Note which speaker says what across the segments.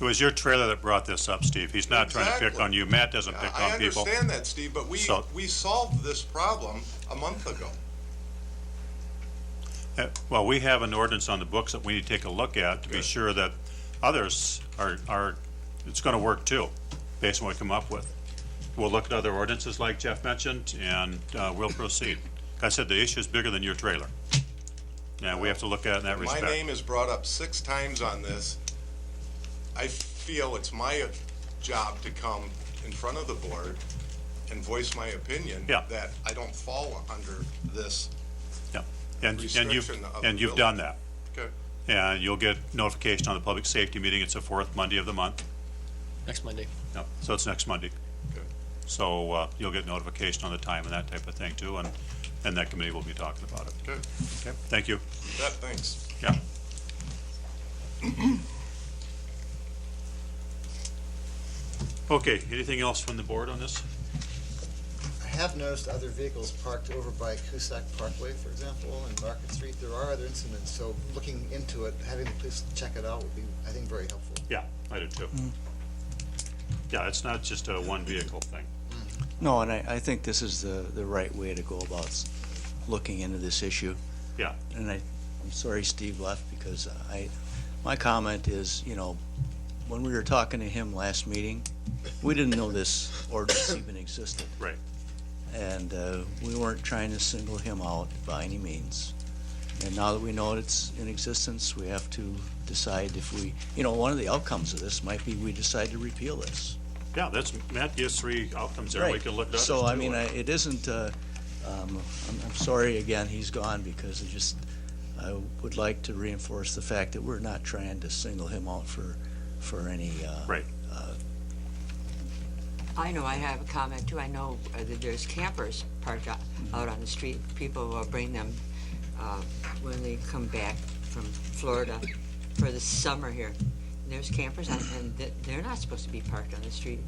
Speaker 1: It was your trailer that brought this up, Steve. He's not trying to pick
Speaker 2: Exactly.
Speaker 1: on you. Matt doesn't pick
Speaker 2: I
Speaker 1: on people.
Speaker 2: understand that, Steve, but we,
Speaker 1: So-
Speaker 2: we solved this problem a month ago.
Speaker 1: Uh, Well, we have an ordinance on the books that we need to take a look at to be
Speaker 2: Good.
Speaker 1: sure that others are, are, it's gonna work too, based on what we come up with. We'll look at other ordinances like Jeff mentioned, and, uh, we'll proceed. Like I said, the issue is bigger than your trailer. Now, we have to look at it in that
Speaker 2: My
Speaker 1: respect.
Speaker 2: name is brought up six times on this. I feel it's my job to come in front of the board and voice my opinion.
Speaker 1: Yeah.
Speaker 2: That I don't fall under this.
Speaker 1: Yeah. And, and you've,
Speaker 2: Restriction of
Speaker 1: and you've done
Speaker 2: building.
Speaker 1: that.
Speaker 2: Okay.
Speaker 1: And you'll get notification on the public safety meeting. It's the fourth Monday of the month.
Speaker 3: next Monday.
Speaker 1: Yep, so it's next Monday.
Speaker 2: Good.
Speaker 1: So, uh, you'll get notification on the time and that type of thing too, and, and that committee will be talking about it.
Speaker 2: Good.
Speaker 1: Okay, thank you.
Speaker 2: That, thanks.
Speaker 1: Yeah. Okay, anything else from the board on this?
Speaker 4: I have noticed other vehicles parked over by Cusack Parkway, for example, and Market Street. There are other incidents, so looking into it, having the police check it out would be, I think, very helpful.
Speaker 1: Yeah, I do too. Yeah, it's not just a one vehicle thing.
Speaker 5: No, and I, I think this is the, the right way to go about s- looking into this issue.
Speaker 1: Yeah.
Speaker 5: And I, I'm sorry Steve left because I, my comment is, you know, when we were talking to him last meeting, we didn't know this ordinance even existed.
Speaker 1: Right.
Speaker 5: And, uh, we weren't trying to single him out by any means. And now that we know it's in existence, we have to decide if we, you know, one of the outcomes of this might be we decide to repeal this.
Speaker 1: Yeah, that's, Matt gives three outcomes there. We
Speaker 5: Right.
Speaker 1: can look at others
Speaker 5: So, I
Speaker 1: too.
Speaker 5: mean, I- it isn't, uh, um, I'm I'm sorry again, he's gone, because I just, I would like to reinforce the fact that we're not trying to single him out for, for any, uh,
Speaker 1: Right.
Speaker 6: I know, I have a comment too. I know uh, that there's campers parked out out on the street. People will bring them uh, when they come back from Florida for the summer here. And There's campers on, and th- they're not supposed to be parked on the street,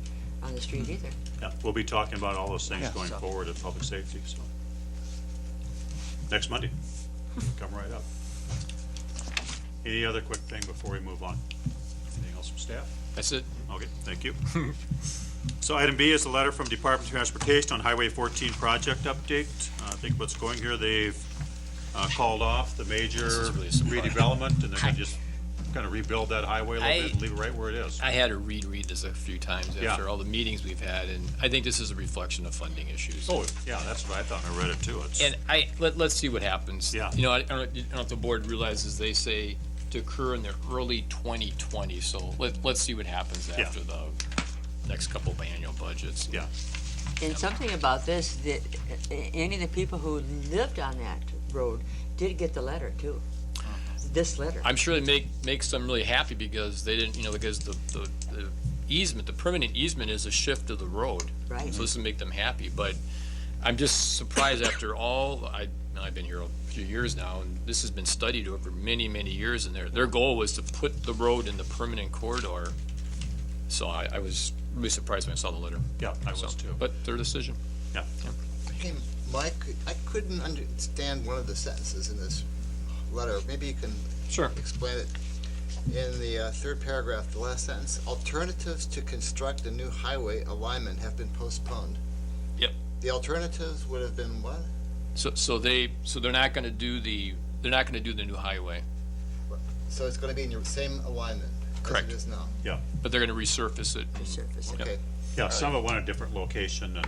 Speaker 6: on the street either.
Speaker 1: Yeah, we'll be talking about all those things
Speaker 5: Yeah,
Speaker 1: going
Speaker 6: so-
Speaker 1: forward at public safety, so. Next Monday, come right up. Any other quick thing before we move on? Anything else from staff?
Speaker 3: That's it.
Speaker 1: Okay, thank you. So item B is a letter from Department of Transportation on Highway 14 project update. Uh, I think what's going here, they've uh, called off the major
Speaker 3: This is really a surprise.
Speaker 1: redevelopment, and they're gonna just kind of rebuild that highway a little
Speaker 3: I-
Speaker 1: bit and leave it right where it is.
Speaker 3: I had to reread this a few times
Speaker 1: Yeah.
Speaker 3: after all the meetings we've had, and I think this is a reflection of funding issues.
Speaker 1: Oh, yeah, that's what I thought, I read it too. It's-
Speaker 3: And I, let, let's see what happens.
Speaker 1: Yeah.
Speaker 3: You know, I, I don't, I don't know if the board realizes, they say to occur in the early twenty twenty, so let, let's see what happens
Speaker 1: Yeah.
Speaker 3: after the next couple of annual budgets.
Speaker 1: Yeah.
Speaker 6: And something about this, that uh, any of the people who lived on that road did get the letter too. This letter.
Speaker 3: I'm sure it make, makes them really happy because they didn't, you know, because the, the, the easement, the permanent easement is a shift of the road.
Speaker 6: Right.
Speaker 3: So this will make them happy, but I'm just surprised after all, I, I've been here a few years now, and this has been studied over many, many years, and their, their goal was to put the road in the permanent corridor. So I, I was really surprised when I saw the letter.
Speaker 1: Yeah, I
Speaker 3: So,
Speaker 1: was too.
Speaker 3: But their decision.
Speaker 1: Yeah.
Speaker 4: Hey, Mike, I couldn't understand one of the sentences in this letter. Maybe you can
Speaker 3: Sure.
Speaker 4: explain it. In the uh, third paragraph, the last sentence, alternatives to construct a new highway alignment have been postponed.
Speaker 3: Yep.
Speaker 4: The alternatives would have been what?
Speaker 3: So, so they, so they're not gonna do the, they're not gonna do the new highway,
Speaker 4: So it's gonna be in your same alignment as
Speaker 3: Correct.
Speaker 4: it is now?
Speaker 3: but they're gonna resurface it. and-
Speaker 6: Surface.
Speaker 4: Okay.
Speaker 3: Uh,
Speaker 1: Yeah, some of it went a different location and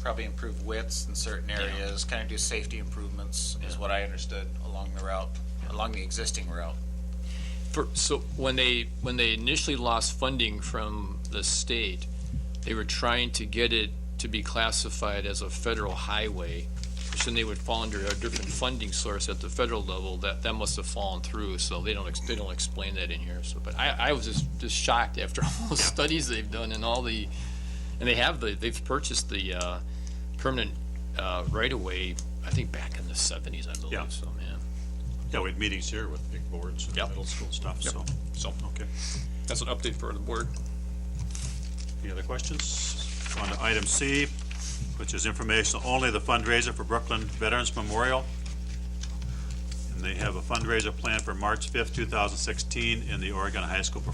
Speaker 7: probably improve widths in certain areas, kind of do safety improvements, is what I understood along the route, along the existing route.
Speaker 3: For, so when they when they initially lost funding from the state, they were trying to get it to be classified as a federal highway, which then they would fall under a different funding source at the federal level. That that must have fallen through. So they don't ex- they don't explain that in here. So, but I, I was just, just shocked after all the studies they've done and all the and they have the they've purchased the uh, permanent uh, right of way. I think back in the seventies, I believe.
Speaker 1: Yeah.
Speaker 3: So man,
Speaker 1: Yeah, we had meetings here with big boards and
Speaker 3: Yep.
Speaker 1: middle school stuff,
Speaker 3: Yep.
Speaker 1: so,
Speaker 3: so
Speaker 1: okay.
Speaker 3: that's an update for the board.
Speaker 1: Any other questions? On to item C, which is informational only, the fundraiser for Brooklyn Veterans Memorial. And they have a fundraiser planned for March fifth, two thousand sixteen, in the Oregon High School